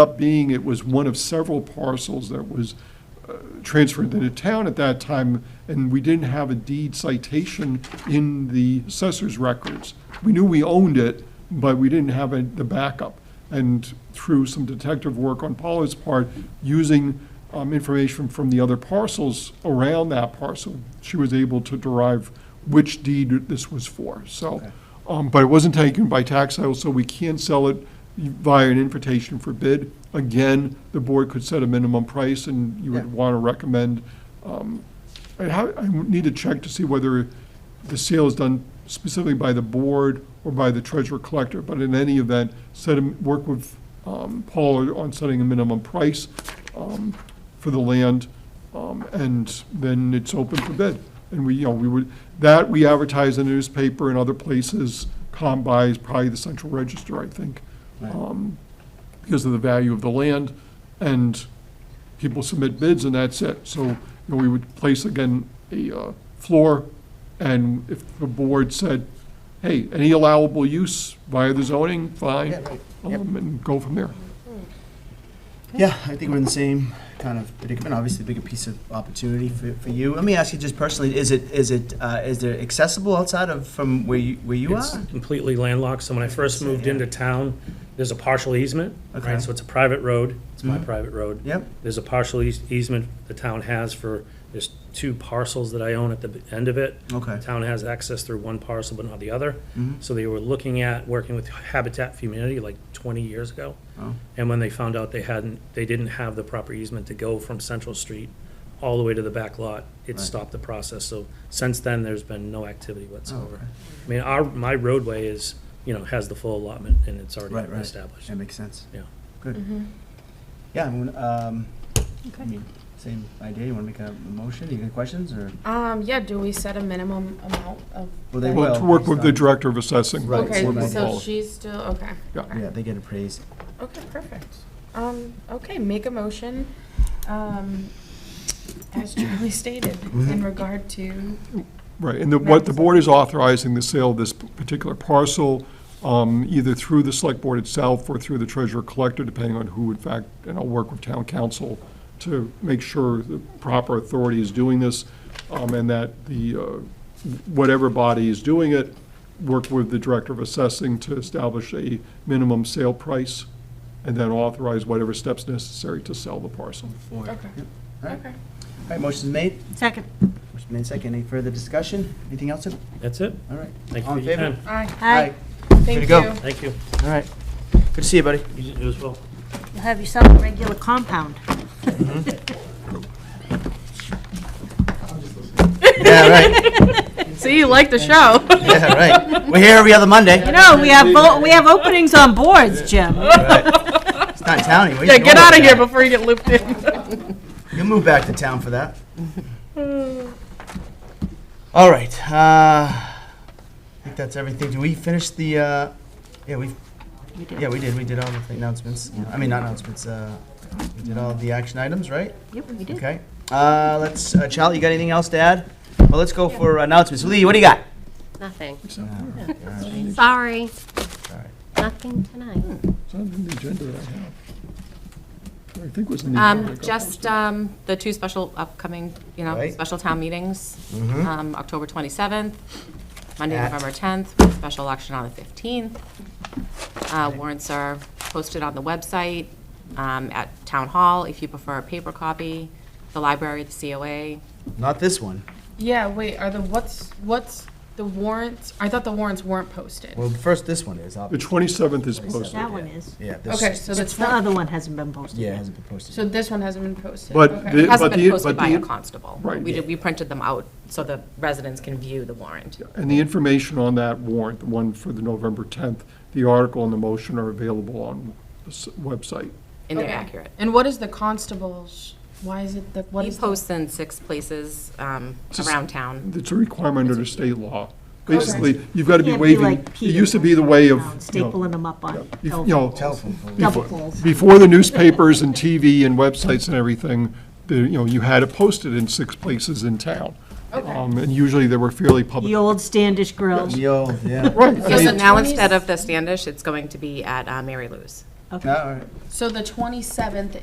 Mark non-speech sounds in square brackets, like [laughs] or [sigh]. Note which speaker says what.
Speaker 1: up being it was one of several parcels that was uh, transferred to the town at that time, and we didn't have a deed citation in the assessor's records. We knew we owned it, but we didn't have a- the backup. And through some detective work on Pollard's part, using um, information from the other parcels around that parcel, she was able to derive which deed this was for, so. um, But it wasn't taken by tax sale, so we can't sell it via an invitation for bid. Again, the board could set a minimum price, and you
Speaker 2: Yeah.
Speaker 1: would want to recommend. um, I ha- I need to check to see whether the sale is done specifically by the board or by the treasurer collector, but in any event, set, a- work with um, Paul on setting a minimum price um, for the land, um, and then it's open for bid. And we, you know, we would, that we advertise in the newspaper and other places, Combi is probably the central register, I think,
Speaker 2: Right.
Speaker 1: um, because of the value of the land, and people submit bids, and that's it. So, you know, we would place again a uh, floor, and if the board said, hey, any allowable use via the zoning, fine,
Speaker 2: Yeah, right. Yep.
Speaker 1: um, and go from there.
Speaker 2: Yeah, I think we're in the same kind of predicament, obviously a bigger piece of opportunity for, for you. Let me ask you just personally, is it, is it, uh, is there accessible outside of, from where you, where you
Speaker 3: It's
Speaker 2: are?
Speaker 3: completely landlocked, so when I first moved into town, there's a partial easement,
Speaker 2: Okay. Mm-hmm.
Speaker 3: right? So it's a private road, it's my private road.
Speaker 2: Yep.
Speaker 3: There's a partial eas- easement the town has for, there's two parcels that I own at the b- end of it.
Speaker 2: Okay. Mm-hmm.
Speaker 3: The Town has access through one parcel but not the other. So they were looking at, working with Habitat for Humanity like 20 years ago.
Speaker 2: Oh.
Speaker 3: And when they found out they hadn't, they didn't have the proper easement to go from Central Street all the way to the back lot, it stopped the process. So since then, there's been no activity whatsoever.
Speaker 2: okay.
Speaker 3: I mean, our, my roadway is, you know, has the full allotment and it's already
Speaker 2: Right, right.
Speaker 3: established.
Speaker 2: That makes sense.
Speaker 3: Yeah.
Speaker 2: Good. Yeah, I mean, um, I
Speaker 4: Mm-hmm. Okay.
Speaker 2: mean, same idea, you wanna make a motion, you got questions, or?
Speaker 4: Um, yeah, do we set a minimum amount of?
Speaker 2: Well, they
Speaker 4: the-
Speaker 2: will.
Speaker 1: Well, to work with the
Speaker 2: based on-
Speaker 1: director of assessing.
Speaker 2: Right,
Speaker 1: work
Speaker 4: Okay,
Speaker 1: with
Speaker 4: so
Speaker 1: Paul.
Speaker 4: she's still, okay.
Speaker 1: Yeah.
Speaker 4: okay.
Speaker 2: Yeah, they get appraised.
Speaker 4: Okay, perfect. Um, okay, make a motion, um, as Charlie [laughs] stated,
Speaker 2: Mm-hmm.
Speaker 4: in regard to,
Speaker 1: Right, and the, what the board is authorizing the sale of this particular parcel, um, either through the select board itself or through the treasurer collector, depending on who in fact, and I'll work with town council to make sure the proper authority is doing this, um, and that the, uh, whatever body is doing it, work with the director of assessing to establish a minimum sale price, and then authorize whatever steps necessary to sell the parcel.
Speaker 4: okay,
Speaker 2: Alright,
Speaker 4: okay.
Speaker 2: alright, motion's made,
Speaker 5: Second.
Speaker 2: motion made second, any further discussion, anything else? All
Speaker 3: That's it.
Speaker 2: right.
Speaker 3: Thank you
Speaker 2: All
Speaker 3: for
Speaker 2: in
Speaker 3: your
Speaker 2: favor?
Speaker 3: time.
Speaker 4: Aye,
Speaker 5: Hi,
Speaker 2: Way to
Speaker 4: thank
Speaker 2: go.
Speaker 4: you.
Speaker 3: Thank you.
Speaker 2: All right, good to see you, buddy.
Speaker 3: You you as well.
Speaker 5: you'll have yourself a regular compound.
Speaker 2: Yeah, right, [laughs]
Speaker 4: See, you like the
Speaker 5: [laughs]
Speaker 4: show.
Speaker 2: yeah, right, we're here every other Monday,
Speaker 5: You know, we have, vo- we have openings on boards, Jim.
Speaker 4: [laughs]
Speaker 2: it's not town anymore.
Speaker 4: Yeah, get out of here before you get looped in.
Speaker 2: [laughs] You'll move back to town for
Speaker 4: [laughs]
Speaker 2: that. All right. Uh, I think that's everything. Do we finish the? Uh, yeah, we.
Speaker 5: We did.
Speaker 2: Yeah, we did. We did all the announcements. I mean, not announcements. Uh, we did all the action items, right?
Speaker 5: Yep, we did.
Speaker 2: Okay. Uh, let's. Uh, Charlie, you got anything else to add? Well, let's go for announcements. Lee, what do you got?
Speaker 6: Nothing.
Speaker 2: All
Speaker 6: Sorry,
Speaker 2: right. Hmm.
Speaker 6: nothing tonight.
Speaker 1: It's not on the agenda that I have. I think it was in the. agenda.
Speaker 7: Um, Just um, the two special upcoming, you know,
Speaker 2: Right. Mm-hmm.
Speaker 7: special town meetings, um, October 27th, Monday,
Speaker 2: At-
Speaker 7: November 10th, with special election on the 15th. Uh, Warrants are posted on the website, um, at Town Hall, if you prefer a paper copy, the library, the COA.
Speaker 2: Not this one.
Speaker 4: Yeah, wait, are the, what's, what's the warrants? I thought the warrants weren't posted.
Speaker 2: Well, first this one is.
Speaker 1: The
Speaker 2: Obviously.
Speaker 1: 27th is posted.
Speaker 5: That one is.
Speaker 2: Yeah. This,
Speaker 4: Okay, so that's
Speaker 5: The
Speaker 4: not,
Speaker 5: other one hasn't been posted
Speaker 2: Yeah, it
Speaker 5: yet.
Speaker 2: hasn't been posted.
Speaker 4: so this one hasn't been posted.
Speaker 1: But
Speaker 4: Okay.
Speaker 1: the-
Speaker 7: It hasn't been
Speaker 1: the-
Speaker 7: posted
Speaker 1: but
Speaker 7: by
Speaker 1: the-
Speaker 7: a constable.
Speaker 1: Right.
Speaker 7: We did, we printed them out so the residents can view the warrant.
Speaker 1: And the information on that warrant, the one for the November 10th, the article and the motion are available on the s- website.
Speaker 7: And they're
Speaker 4: Okay.
Speaker 7: accurate.
Speaker 4: And what is the constables, why is it, the what
Speaker 7: He
Speaker 4: is? the-
Speaker 7: posts in six places um,
Speaker 1: Just-
Speaker 7: around town.
Speaker 1: It's a requirement under state law. Basically, you've got to be
Speaker 5: Can't
Speaker 1: waiving,
Speaker 5: like
Speaker 1: it
Speaker 5: Peter
Speaker 1: used to be the way of, you know,
Speaker 5: Stapling them up on
Speaker 1: you
Speaker 5: telephone
Speaker 1: know,
Speaker 2: Telephone. pole.
Speaker 5: double poles.
Speaker 1: before the
Speaker 5: [laughs]
Speaker 1: newspapers and TV and websites and everything, the, you know, you had it posted in six places in town. Um, And usually they were fairly
Speaker 5: The
Speaker 1: public.
Speaker 5: old Standish Grill.
Speaker 2: Yo, yeah.
Speaker 1: Right.
Speaker 7: So now, instead of the Standish, it's going to be at uh, Mary Lou's.
Speaker 5: Okay.
Speaker 2: All right.
Speaker 4: So the 27th